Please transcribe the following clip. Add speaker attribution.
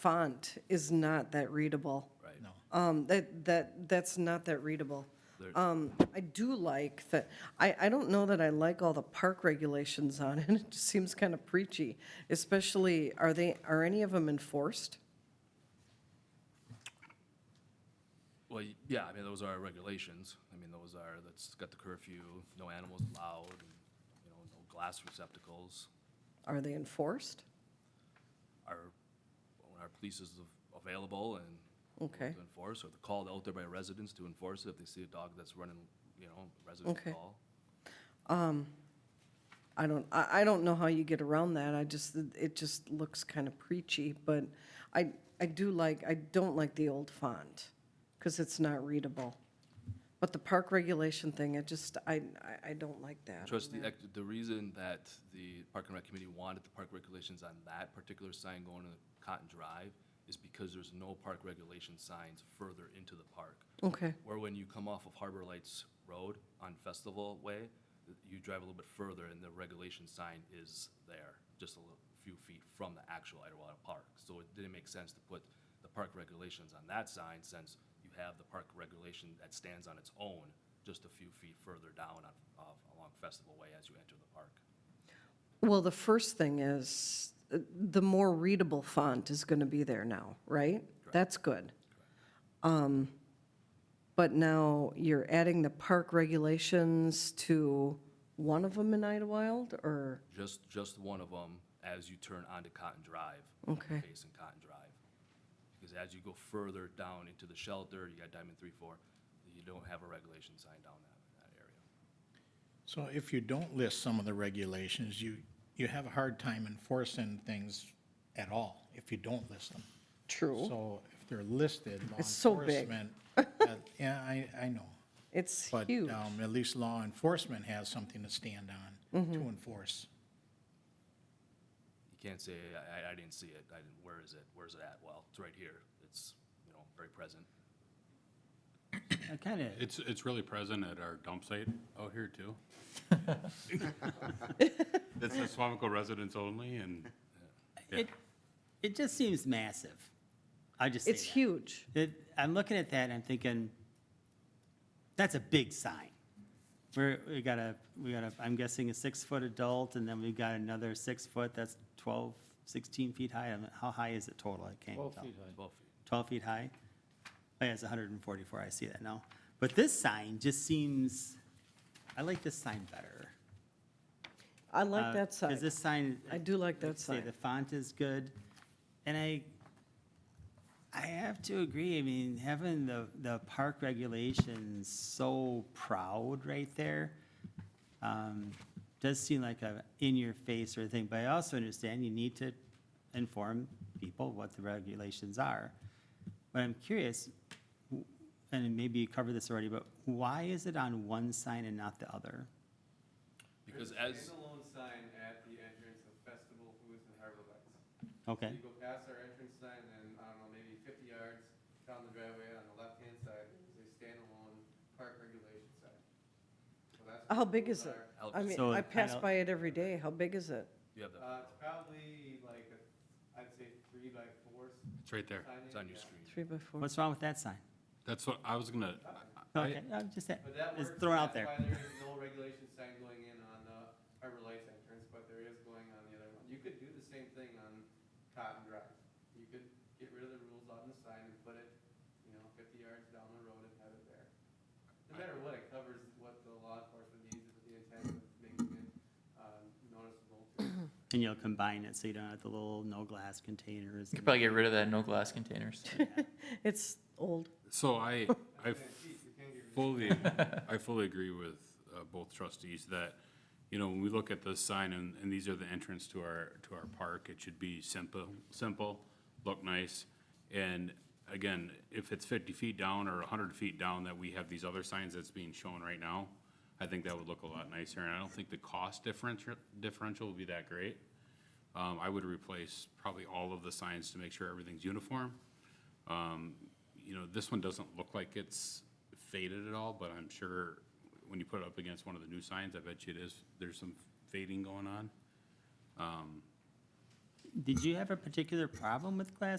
Speaker 1: font is not that readable.
Speaker 2: Right.
Speaker 1: Um, that, that, that's not that readable. Um, I do like that, I, I don't know that I like all the park regulations on it, it just seems kind of preachy, especially, are they, are any of them enforced?
Speaker 2: Well, y- yeah, I mean, those are our regulations. I mean, those are, that's got the curfew, no animals allowed, and, you know, no glass receptacles.
Speaker 1: Are they enforced?
Speaker 2: Our, when our police is av- available and able
Speaker 1: Okay.
Speaker 2: to enforce, or they're called out there by residents to enforce it if they see a dog that's running, you know, residents
Speaker 1: Okay.
Speaker 2: call.
Speaker 1: I don't, I, I don't know how you get around that, I just, it just looks kind of preachy, but I, I do like, I don't like the old font, because it's not readable. But the park regulation thing, I just, I, I- I don't like that.
Speaker 2: Trustee, Eck, the reason that the Park and Rec Committee wanted the park regulations on that particular sign going to Cotton Drive is because there's no park regulation signs further into the park.
Speaker 1: Okay,
Speaker 2: Where when you come off of Harbor Lights Road on Festival Way, you drive a little bit further and the regulation sign is there, just a little few feet from the actual Idlewild Park. So it didn't make sense to put the park regulations on that sign since you have the park regulation that stands on its own just a few feet further down on, of, along Festival Way as you enter the park.
Speaker 1: well, the first thing is, uh, the more readable font is gonna be there now, right? That's good. Um, But now you're adding the park regulations to one of them in Idlewild, or,
Speaker 2: Just, just one of them as you turn onto Cotton Drive.
Speaker 1: Okay.
Speaker 2: Facing Cotton Drive. Because as you go further down into the shelter, you got Diamond Three Four, you don't have a regulation sign down that, that area.
Speaker 3: So if you don't list some of the regulations, you, you have a hard time enforcing things at all if you don't list them.
Speaker 1: true?
Speaker 3: So if they're listed, law
Speaker 1: It's so big.
Speaker 3: enforcement. uh, Yeah, I, I know.
Speaker 1: It's
Speaker 3: But
Speaker 1: huge.
Speaker 3: um, at least law enforcement has something to stand on
Speaker 1: Mm-hmm.
Speaker 3: to enforce.
Speaker 2: You can't say, I, I- I didn't see it, I didn't, where is it, where's it at? Well, it's right here, it's, you know, very present.
Speaker 4: I kind of,
Speaker 5: It's, it's really present at our dump site out here too. It's the Swamico residents only and,
Speaker 4: it, it just seems massive. I just say
Speaker 1: It's
Speaker 4: that.
Speaker 1: huge.
Speaker 4: It- I'm looking at that and I'm thinking, that's a big sign. We're, we got a, we got a, I'm guessing a six-foot adult and then we've got another six-foot, that's 12, 16 feet high. I don't know, How high is it total? I can't tell.
Speaker 2: Twelve feet.
Speaker 4: 12 feet high? Oh, yeah, it's 144, I see that now. But this sign just seems, I like this sign better.
Speaker 1: I like that side.
Speaker 4: Because Uh, this sign.
Speaker 1: I do like that
Speaker 4: you say,
Speaker 1: sign.
Speaker 4: The font is good, and I, I have to agree, I mean, having the, the park regulations so proud right there, um, does seem like a in-your-face sort of thing, but I also understand you need to inform people what the regulations are. But I'm curious, wh- and maybe you covered this already, but why is it on one sign and not the other?
Speaker 2: Because
Speaker 6: There's
Speaker 2: as,
Speaker 6: a standalone sign at the entrance of Festival Foods and Harbor Lights.
Speaker 4: Okay,
Speaker 6: You go past our entrance sign and, I don't know, maybe fifty yards down the driveway on the left-hand side is a standalone park regulation sign. So that's where
Speaker 1: How big
Speaker 6: those
Speaker 1: is it?
Speaker 6: are.
Speaker 2: Alex,
Speaker 1: I mean,
Speaker 4: So
Speaker 1: I
Speaker 4: I
Speaker 1: pass
Speaker 4: don't-
Speaker 1: by it every day. How big is it?
Speaker 2: you have that,
Speaker 6: Uh, it's probably like, a would say three by four
Speaker 5: it's right there.
Speaker 6: signage.
Speaker 2: it's on your
Speaker 6: yeah.
Speaker 2: screen.
Speaker 1: Three by four?
Speaker 4: what's wrong with that sign?
Speaker 5: That's what I was gonna, I-
Speaker 4: Okay, I'm just,
Speaker 6: But that
Speaker 4: just
Speaker 6: works,
Speaker 4: thrown
Speaker 6: and
Speaker 4: out there.
Speaker 6: that's why there is no regulation sign going in on the Harbor Lights entrance, but there is going on the other one. You could do the same thing on Cotton Drive. You could get rid of the rules on the sign and put it, you know, fifty yards down the road and have it there. No matter what, it covers what the law enforcement needs with the intent of making it, um, noticeable to
Speaker 4: And you'll combine it so you don't have the little no glass containers.
Speaker 7: You could probably get rid of that no glass containers.
Speaker 1: It's old.
Speaker 5: so I, I fully, I fully agree with uh, both trustees that, you know, when we look at this sign and, and these are the entrance to our, to our park, it should be simple, simple, look nice. And again, if it's fifty feet down or hundred feet down that we have these other signs that's being shown right now, I think that would look a lot nicer, and I don't think the cost differential, differential would be that great. Um, I would replace probably all of the signs to make sure everything's uniform. Um, you know, this one doesn't look like it's faded at all, but I'm sure when you put it up against one of the new signs, I bet you it is, there's some fading going on.
Speaker 4: Did you have a particular problem with glass